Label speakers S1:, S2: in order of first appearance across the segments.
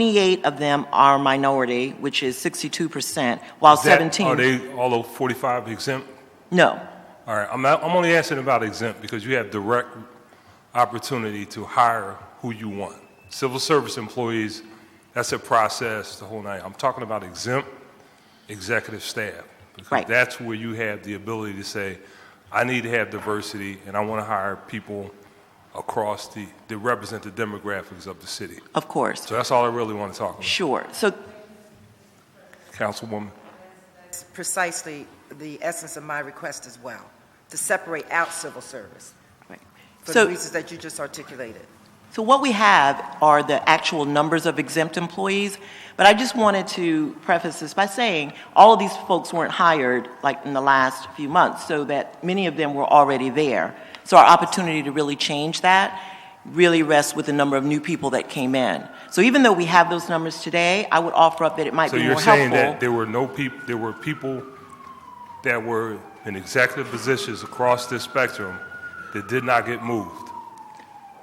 S1: 28 of them are minority, which is 62%, while
S2: That-
S1: 17...
S2: Are they all of 45 exempt?
S1: No.
S2: All right, I'm, not- I'm only asking about exempt because you have direct opportunity to hire who you want. Civil service employees, that's a process, the whole night. I'm talking about exempt executive staff.
S1: Right.
S2: Because that's where you have the ability to say, I need to have diversity and I want to hire people across the, that represent the demographics of the city.
S1: Of course.
S2: So that's all I really want to talk about,
S1: Sure. So
S2: Councilwoman.
S3: precisely the essence of my request as well, to separate out civil service for
S1: So-
S3: the reasons that you just articulated.
S1: So what we have are the actual numbers of exempt employees, but I just wanted to preface this by saying all of these folks weren't hired like in the last few months, so that many of them were already there. So our opportunity to really change that really rests with the number of new people that came in. So even though we have those numbers today, I would offer up that it might
S2: So
S1: be
S2: you're
S1: more
S2: saying that
S1: helpful.
S2: there were no people, there were people that were in executive positions across this spectrum that did not get moved?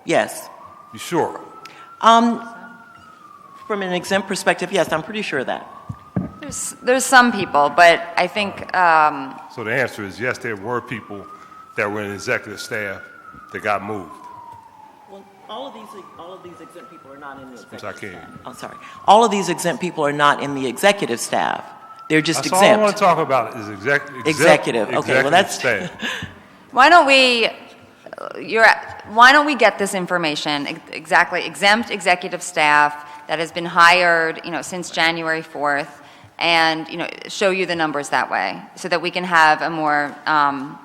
S1: Yes.
S2: You sure?
S1: Um, From an exempt perspective, yes, I'm pretty sure of that.
S4: There's, there's some people, but I think, um,
S2: So the answer is yes, there were people that were in executive staff that got moved.
S1: Well, all of these, all of these exempt people are not in the
S2: executive sorry, I can't hear
S1: I'm sorry. All of these exempt people are not in the executive staff. They're just
S2: That's all I want
S1: exempt.
S2: to talk about is exec- exempt.
S1: Executive. Okay, well,
S2: executive
S1: that's-
S2: staff.
S4: why don't we, uh, you're, why don't we get this information, ex- exactly, exempt executive staff that has been hired, you know, since January 4th, and, you know, show you the numbers that way, so that we can have a more, um,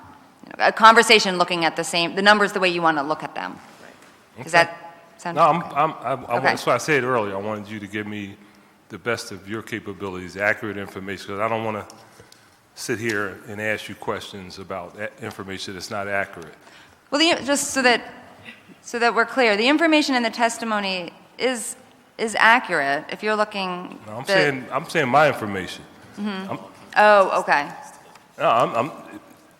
S4: you know, a conversation looking at the same, the numbers the way you want to look at them. Does that sound?
S2: No, I'm, I'm, I, I
S4: Okay.
S2: want, so I said earlier, I wanted you to give me the best of your capabilities, accurate information, because I don't want to sit here and ask you questions about a- information that's not accurate.
S4: Well, the, just so that, so that we're clear, the information in the testimony is, is accurate if you're looking.
S2: No, I'm
S4: the-
S2: saying I'm saying my information. I'm,
S4: Oh, okay.
S2: no, I'm,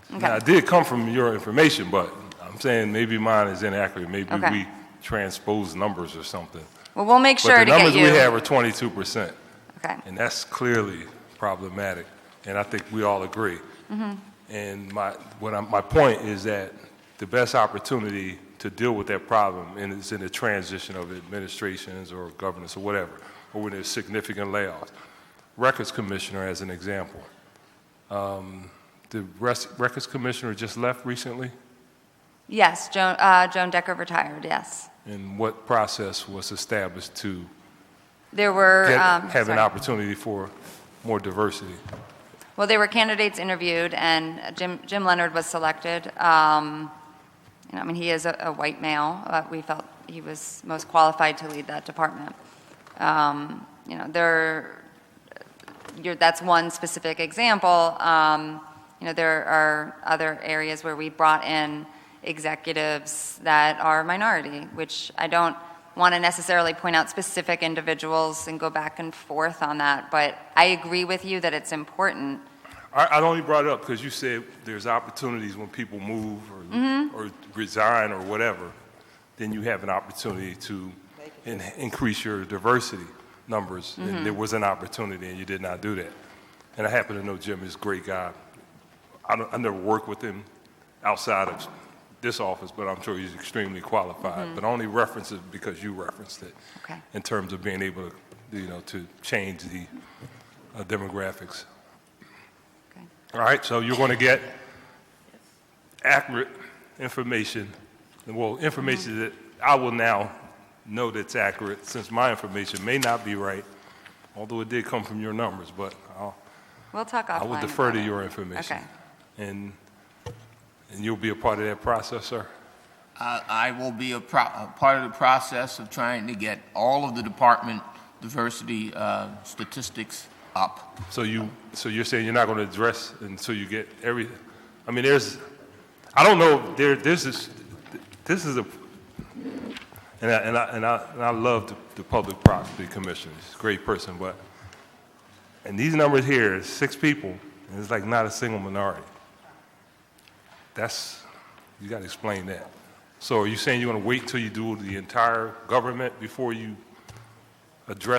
S2: I'm now, it did come from your information, but I'm saying maybe mine is inaccurate. Maybe
S4: Okay.
S2: we transpose numbers or something.
S4: Well, we'll make
S2: but
S4: sure
S2: the
S4: to get
S2: numbers
S4: you.
S2: we have are 22 percent,
S4: Okay,
S2: and that's clearly problematic. And I think we all agree.
S4: Mm-hmm.
S2: And my what I'm, my point is that the best opportunity to deal with that problem and is in the transition of administrations or governance or whatever, or when there's significant layoffs. Records commissioner, as an example. um, The res- records commissioner just left recently,
S4: yes, Joan, uh, Joan Decker retired, yes.
S2: and what process was established to
S4: There were,
S2: get-
S4: um,
S2: have an
S4: sorry.
S2: opportunity for more diversity?
S4: Well, there were candidates interviewed, and Jim, Jim Leonard was selected. Um, you know, I mean, he is a, a white male, but we felt he was most qualified to lead that department. Um, you know, there, you're, that's one specific example. Um, you know, there are other areas where we brought in executives that are minority, which I don't want to necessarily point out specific individuals and go back and forth on that, but I agree with you that it's important.
S2: I, I only brought it up because you said there's opportunities when people move or, or resign or whatever, then you have an opportunity to in, increase your diversity numbers. And there was an opportunity, and you did not do that. And I happen to know Jim is a great guy. I, don't, I never worked with him outside of this office, but I'm sure he's extremely qualified. But I only reference it because you referenced it
S4: Okay.
S2: in terms of being able to, you know, to change the uh, demographics. All right, so you're going to get accurate information, well, information that I will now know that's accurate, since my information may not be right, although it did come from your numbers, but I'll,
S4: We'll talk offline.
S2: I will defer to
S4: about it.
S2: your information.
S4: Okay.
S2: And, and you'll be a part of that process, sir?
S5: I, I will be a, pro- a part of the process of trying to get all of the department diversity uh, statistics up.
S2: So you, so you're saying you're not going to address until you get every, I mean, there's, I don't know, there, this is, this is a, and I, and I, and I, and I love the, the public property commissioner, he's a great person, but, and these numbers here, is six people, and it's like not a single minority. That's, you got to explain that. So are you saying you're going to wait till you do the entire government before you address